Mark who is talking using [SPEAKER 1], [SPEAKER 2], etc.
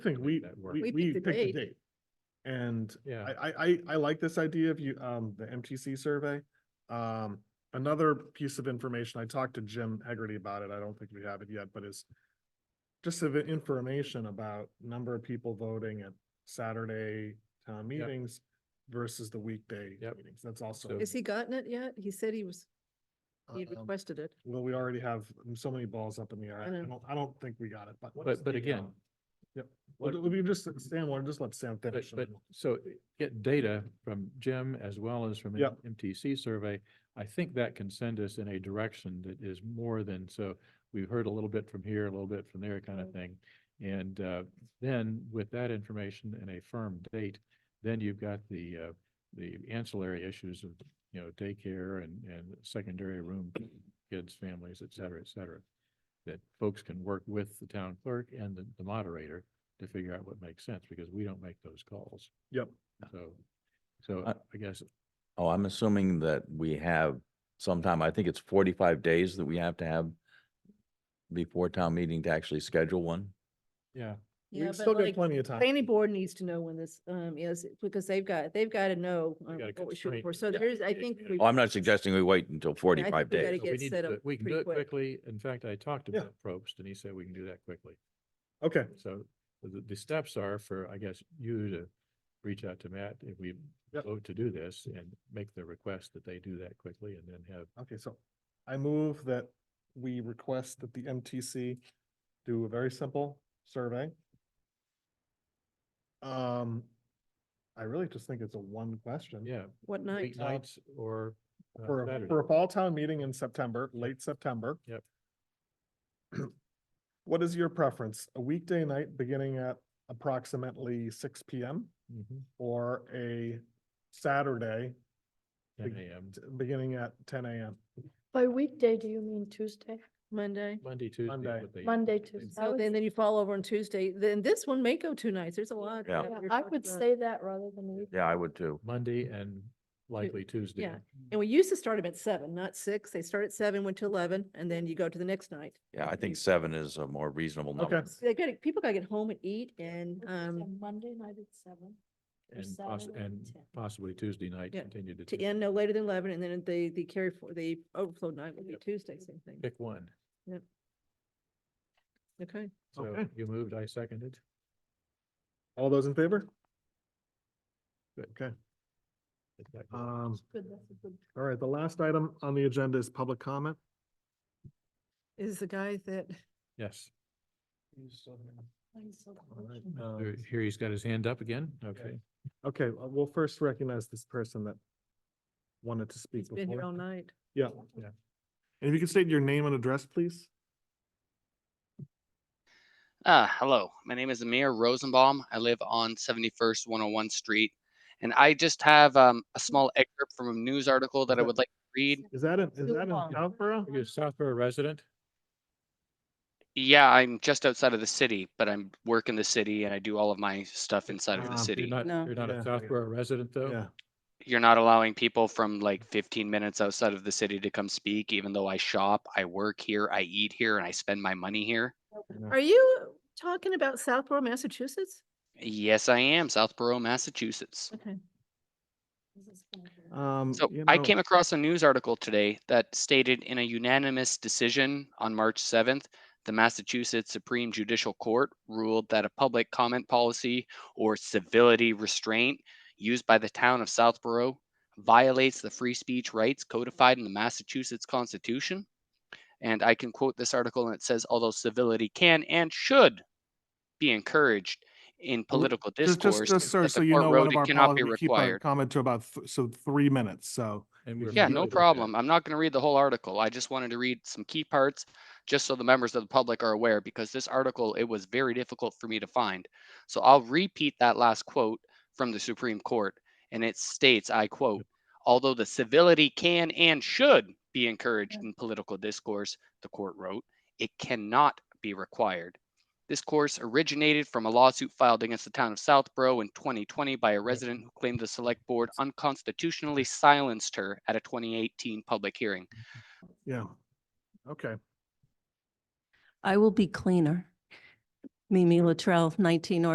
[SPEAKER 1] thing,
[SPEAKER 2] make
[SPEAKER 1] we,
[SPEAKER 2] that work.
[SPEAKER 1] we,
[SPEAKER 3] We
[SPEAKER 1] we
[SPEAKER 3] picked
[SPEAKER 1] picked
[SPEAKER 3] a
[SPEAKER 1] a
[SPEAKER 3] date.
[SPEAKER 1] date. And
[SPEAKER 2] Yeah.
[SPEAKER 1] I, I, I, I like this idea of you, um, the MTC survey. Um, another piece of information, I talked to Jim Hegarty about it, I don't think we have it yet, but is just of information about number of people voting at Saturday town
[SPEAKER 2] Yep.
[SPEAKER 1] meetings versus the weekday
[SPEAKER 2] Yep.
[SPEAKER 1] meetings, that's also.
[SPEAKER 2] So-
[SPEAKER 3] Has he gotten it yet? He said he was, he
[SPEAKER 1] um,
[SPEAKER 3] requested it.
[SPEAKER 1] Well, we already have so many balls up in the air,
[SPEAKER 3] I
[SPEAKER 1] I
[SPEAKER 3] know.
[SPEAKER 1] don't, I don't think we got it, but.
[SPEAKER 2] But, but again,
[SPEAKER 1] Well,
[SPEAKER 2] what-
[SPEAKER 1] We just, Sam, we'll just let Sam
[SPEAKER 2] but,
[SPEAKER 1] finish. and
[SPEAKER 2] but,
[SPEAKER 1] then we'll-
[SPEAKER 2] so uh, get data from Jim as well as from an
[SPEAKER 1] Yep.
[SPEAKER 2] MTC survey. I think that can send us in a direction that is more than, so we've heard a little bit from here, a little bit from there kind of
[SPEAKER 3] Mm.
[SPEAKER 2] thing. And, uh, then with that information and a firm date, then you've got the, uh, the ancillary issues of, you know, daycare and, and secondary room, kids, families, et cetera, et cetera. That folks can work with the town clerk and the- the moderator to figure out what makes sense, because we don't make those calls.
[SPEAKER 1] Yep.
[SPEAKER 2] So, so
[SPEAKER 3] Uh,
[SPEAKER 4] I-
[SPEAKER 2] I guess,
[SPEAKER 4] Oh, I'm assuming that we have sometime, I think it's forty-five days that we have to have before town meeting to actually schedule one.
[SPEAKER 2] yeah,
[SPEAKER 3] Yeah,
[SPEAKER 1] We
[SPEAKER 3] but
[SPEAKER 1] still got
[SPEAKER 3] like,
[SPEAKER 1] plenty of time.
[SPEAKER 3] Planning board needs to know when this, um, is, because they've got, they've got to know
[SPEAKER 2] They
[SPEAKER 3] um,
[SPEAKER 2] got a
[SPEAKER 3] what we should,
[SPEAKER 2] constraint.
[SPEAKER 3] for. so
[SPEAKER 2] Yeah.
[SPEAKER 3] there's, I
[SPEAKER 2] Yeah,
[SPEAKER 3] think.
[SPEAKER 2] yeah.
[SPEAKER 3] we-
[SPEAKER 4] Oh, I'm not suggesting we wait until forty-five
[SPEAKER 3] we gotta
[SPEAKER 4] days.
[SPEAKER 2] so we
[SPEAKER 3] gets
[SPEAKER 2] need
[SPEAKER 3] set
[SPEAKER 2] to-
[SPEAKER 3] up
[SPEAKER 2] we can
[SPEAKER 3] pretty
[SPEAKER 2] do it
[SPEAKER 3] quick.
[SPEAKER 2] quickly. In fact, I talked to
[SPEAKER 1] Yeah.
[SPEAKER 2] Bill Probst and he said we can do that quickly.
[SPEAKER 1] Okay,
[SPEAKER 2] So the, the steps are for, I guess, you to reach out to Matt if we
[SPEAKER 1] Yep.
[SPEAKER 2] vote to do this and make the request that they do that quickly and then have,
[SPEAKER 1] okay, so I move that we request that the MTC do a very simple survey. Um, I really just think it's a one question.
[SPEAKER 2] yeah,
[SPEAKER 3] What night?
[SPEAKER 2] weeknights or uh,
[SPEAKER 1] For, a-
[SPEAKER 2] Saturday.
[SPEAKER 1] for a fall town meeting in September, late September.
[SPEAKER 2] Yep.
[SPEAKER 1] What is your preference? A weekday night beginning at approximately six P M
[SPEAKER 2] Mhm,
[SPEAKER 1] or a Saturday
[SPEAKER 2] Ten
[SPEAKER 1] Big-
[SPEAKER 2] AM,
[SPEAKER 1] t- beginning at ten A M?
[SPEAKER 5] By weekday, do you mean Tuesday?
[SPEAKER 3] Monday?
[SPEAKER 2] Monday, Tuesday.
[SPEAKER 1] Monday.
[SPEAKER 2] what they-
[SPEAKER 5] Monday,
[SPEAKER 2] they-
[SPEAKER 5] Tuesday? I
[SPEAKER 3] So
[SPEAKER 5] would
[SPEAKER 3] then,
[SPEAKER 5] s-
[SPEAKER 3] then you fall over on Tuesday, then this one may go two nights, there's a lot.
[SPEAKER 4] Yeah.
[SPEAKER 3] that
[SPEAKER 5] yeah,
[SPEAKER 3] we're
[SPEAKER 5] I
[SPEAKER 3] talking
[SPEAKER 5] would
[SPEAKER 3] about.
[SPEAKER 5] say that rather than weekday.
[SPEAKER 4] Yeah, I would too.
[SPEAKER 2] Monday and likely Tuesday.
[SPEAKER 3] yeah. And we used to start them at seven, not six, they start at seven, went to eleven, and then you go to the next night.
[SPEAKER 4] Yeah, I think seven is a more reasonable number.
[SPEAKER 1] Okay.
[SPEAKER 3] So They gotta, people gotta get home and eat and,
[SPEAKER 5] Would you say
[SPEAKER 3] um,
[SPEAKER 5] Monday night at seven. or
[SPEAKER 2] And poss-
[SPEAKER 5] Saturday at
[SPEAKER 2] and
[SPEAKER 5] 10?
[SPEAKER 2] possibly Tuesday night,
[SPEAKER 3] Yeah,
[SPEAKER 2] continue to.
[SPEAKER 3] to
[SPEAKER 2] Tuesday.
[SPEAKER 3] end no later than eleven, and then the, the carry for, the overflow night would be Tuesday, same thing,
[SPEAKER 2] Pick one.
[SPEAKER 3] okay?
[SPEAKER 2] So
[SPEAKER 1] Okay.
[SPEAKER 2] you moved, I seconded.
[SPEAKER 1] All those in favor?
[SPEAKER 2] Good.
[SPEAKER 1] Okay,
[SPEAKER 2] Is that good?
[SPEAKER 1] um,
[SPEAKER 5] Good, that's a good.
[SPEAKER 1] all right, the last item on the agenda is public comment.
[SPEAKER 3] Is the guy that,
[SPEAKER 2] Yes.
[SPEAKER 5] plan, so
[SPEAKER 1] All right,
[SPEAKER 5] fortunate.
[SPEAKER 1] um,
[SPEAKER 2] There- Here he's got his hand up again. Okay.
[SPEAKER 1] Okay, uh, we'll first recognize this person that wanted to speak
[SPEAKER 3] he's been here all
[SPEAKER 1] before.
[SPEAKER 3] night,
[SPEAKER 1] Yeah, and if you could state your name and address, please.
[SPEAKER 6] Uh, hello, my name is Amir Rosenbaum. I live on 71st 101 Street, and I just have um, a small excerpt from a news article that I
[SPEAKER 1] Okay.
[SPEAKER 6] would like to read.
[SPEAKER 1] Is that in, is
[SPEAKER 5] Lou
[SPEAKER 1] that in
[SPEAKER 5] Wang.
[SPEAKER 1] Southborough?
[SPEAKER 2] You're a Southborough resident?
[SPEAKER 6] Yeah, I'm just outside of the city, but I'm work in the city and I do all of my stuff inside of
[SPEAKER 1] Ah,
[SPEAKER 6] the
[SPEAKER 1] you're
[SPEAKER 6] city.
[SPEAKER 2] You're not,
[SPEAKER 3] No.
[SPEAKER 2] you're not
[SPEAKER 1] Yeah.
[SPEAKER 2] a Southborough resident, though?
[SPEAKER 1] Yeah,
[SPEAKER 6] You're not allowing people from like 15 minutes outside of the city to come speak, even though I shop, I work here, I eat here, and I spend my money here.
[SPEAKER 3] are you talking about Southborough, Massachusetts?
[SPEAKER 6] Yes, I am, Southborough, Massachusetts.
[SPEAKER 3] Okay.
[SPEAKER 5] This is gonna be-
[SPEAKER 1] um.
[SPEAKER 6] So
[SPEAKER 1] you
[SPEAKER 6] I
[SPEAKER 1] know,
[SPEAKER 6] came across a news article today that stated in a unanimous decision on March 7th, the Massachusetts Supreme Judicial Court ruled that a public comment policy or civility restraint used by the town of Southborough violates the free speech rights codified in the Massachusetts Constitution. And I can quote this article and it says, although civility can and should be encouraged in political
[SPEAKER 1] Just,
[SPEAKER 6] discourse,
[SPEAKER 1] just, just, sir,
[SPEAKER 6] that
[SPEAKER 1] so
[SPEAKER 6] the
[SPEAKER 1] you
[SPEAKER 6] court
[SPEAKER 1] know,
[SPEAKER 6] wrote
[SPEAKER 1] one of
[SPEAKER 6] it
[SPEAKER 1] our
[SPEAKER 6] cannot be
[SPEAKER 1] policies, we keep our
[SPEAKER 6] required.
[SPEAKER 1] comment to about, th- so three minutes, so.
[SPEAKER 2] And we
[SPEAKER 6] Yeah,
[SPEAKER 2] should
[SPEAKER 6] no
[SPEAKER 2] do that.
[SPEAKER 6] problem. I'm not going to read the whole article. I just wanted to read some key parts just so the members of the public are aware because this article it was very difficult for me to find. So I'll repeat that last quote from the Supreme Court and it states, I quote, although the civility can and should be encouraged in political discourse, the court wrote, it cannot be required. This course originated from a lawsuit filed against the town of Southborough in 2020 by a resident who claimed the select board unconstitutionally silenced her at a 2018 public hearing.
[SPEAKER 1] Yeah, okay.
[SPEAKER 7] I will be cleaner. Mimi Latrell, 19 North